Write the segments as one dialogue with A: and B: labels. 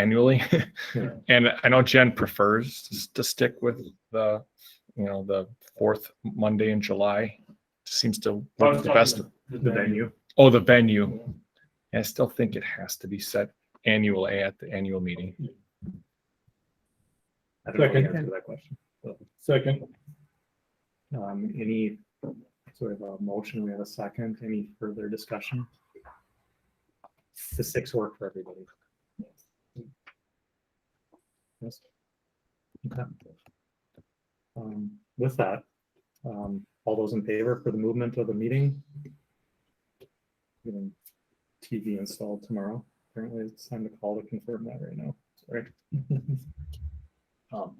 A: annually.
B: Yeah.
A: And I know Jen prefers s- to stick with the, you know, the fourth Monday in July. Seems to
B: I
A: work
B: was
A: the
B: talking
A: best.
B: about The
C: the
B: venue.
C: venue.
A: Oh, the venue. I still think it has to be set annually at the annual meeting.
C: I don't know the
B: Second.
C: answer to that question.
B: Second,
C: Um, any sort of a motion, we have a second, any further discussion? The six work for everybody. Yes. Okay. Um, with that, um, all those in favor for the movement of the meeting? Getting TV installed tomorrow, apparently it's time to call to confirm that right now, sorry. Um,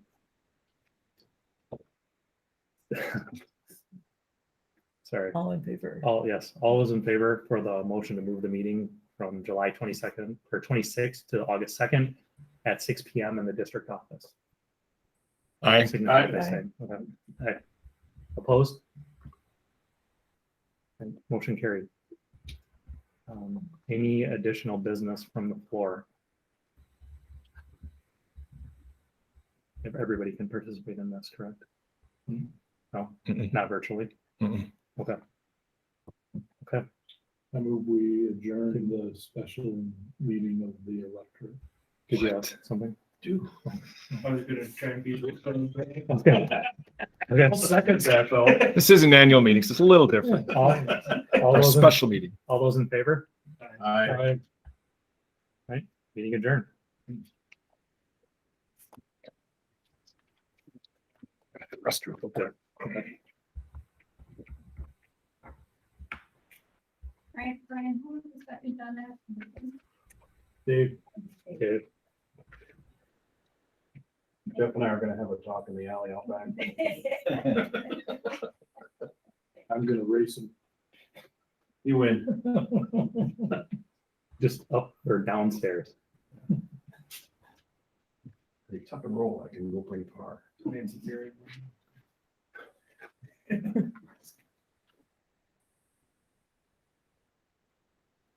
C: Sorry.
D: All in favor?
C: All, yes, all those in favor for the motion to move the meeting from July twenty-second or twenty-sixth to August second at six P M in the district office.
A: I,
C: Signify by
D: Aye.
C: saying, okay. Aye. Opposed? And Motion carried. Um, Any additional business from the floor? If everybody can participate in this, correct? Hmm? No,
A: Mm-mm.
C: not virtually.
A: Mm-mm.
C: Okay.
B: I move we adjourn the special meeting of the electorate.
C: Did you have
A: What?
C: something?
E: do. I was gonna try and be. with them, but-
C: Okay. Okay.
E: Second that though.
A: this is an annual meeting, so it's a little different.
C: All all
A: Our
C: those, in-
A: special meeting.
C: all those in favor,
B: Aye.
C: meeting adjourned.
A: Restroom.
C: Okay.
F: Right, Brian, who was that you done that?
B: Dave,
C: Okay.
B: Jeff and I are gonna have a talk in the alley out back. I'm gonna race him.
E: You win.
C: Just up or downstairs.
B: They tuck and roll, I can go play par.
E: Nancy Kerrigan.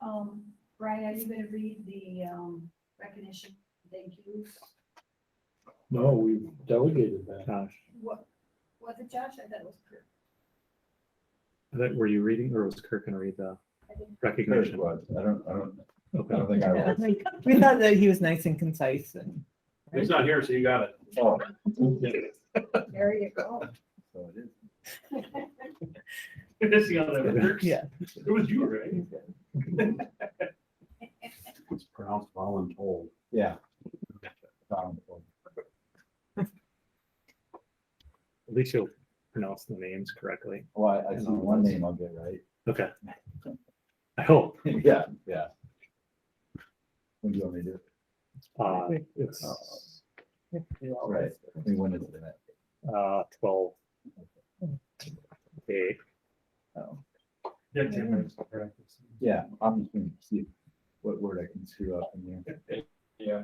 F: Um, Brian, are you gonna read the, um, recognition, thank you?
B: No, we delegated that.
C: Gosh,
F: What, was it Josh? I thought it was Kurt.
C: I thought- were you reading or was Kirk gonna read the
F: I didn't-
C: recognition?
G: I don't, I don't, I
C: Okay.
G: don't think I
D: Yeah,
G: was.
D: like, We thought that he was nice and concise and.
E: He's not here, so you got it.
G: Oh,
F: There you go.
G: so it is.
E: This is how that works.
D: Yeah.
E: It was you, right?
F: Oh.
G: It's pronounced voluntold. Yeah. Voluntold.
C: At least you'll pronounce the names correctly.
G: Well, I, I see one name I'll get right.
C: Okay. I hope.
G: Yeah, yeah. When do you want me to do it?
C: Uh, it's,
G: Right, I mean, when is it?
C: uh, twelve. Okay,
E: Yeah, ten minutes.
G: Yeah, I'm just gonna see what word I can screw up in there.
E: Yeah.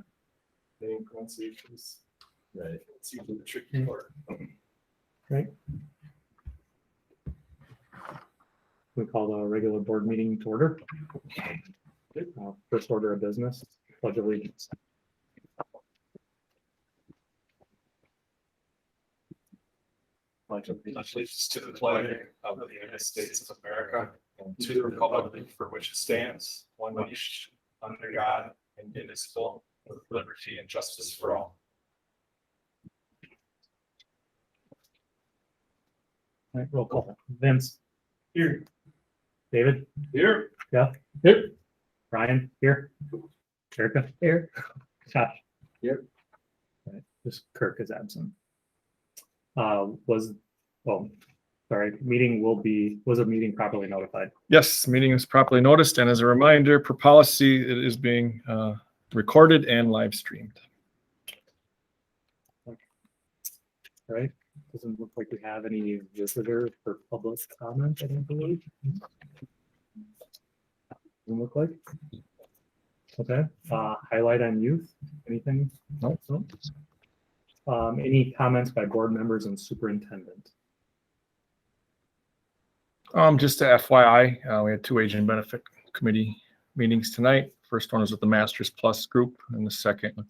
E: Name pronunciations,
G: Right.
E: it's usually the tricky part.
C: we call the regular board meeting to order. Uh, First order of business, pledge allegiance.
E: Allegiance to the flag of the United States of America and to the republic for which it stands, one nation, under God, indivisible, with liberty and justice for all.
C: All right, roll call. Vince,
E: Here.
C: David,
E: Here.
C: Ryan, here. Erica,
D: Here.
C: Josh.
G: Here.
C: All right, Just Kirk is absent. Uh, was, well, sorry, meeting will be, was a meeting properly notified?
A: Yes, meeting is properly noticed, and as a reminder, per policy, it is being uh, recorded and live streamed.
C: All Right? Doesn't look like we have any visitor for public comment, I don't believe. Doesn't look like. Okay, uh, highlight on youth, anything?
A: No.
C: No? Um, any comments by board members and superintendent?
A: Um, just a FYI, uh, we had two agent benefit committee meetings tonight. First one is with the Masters Plus Group and the second with the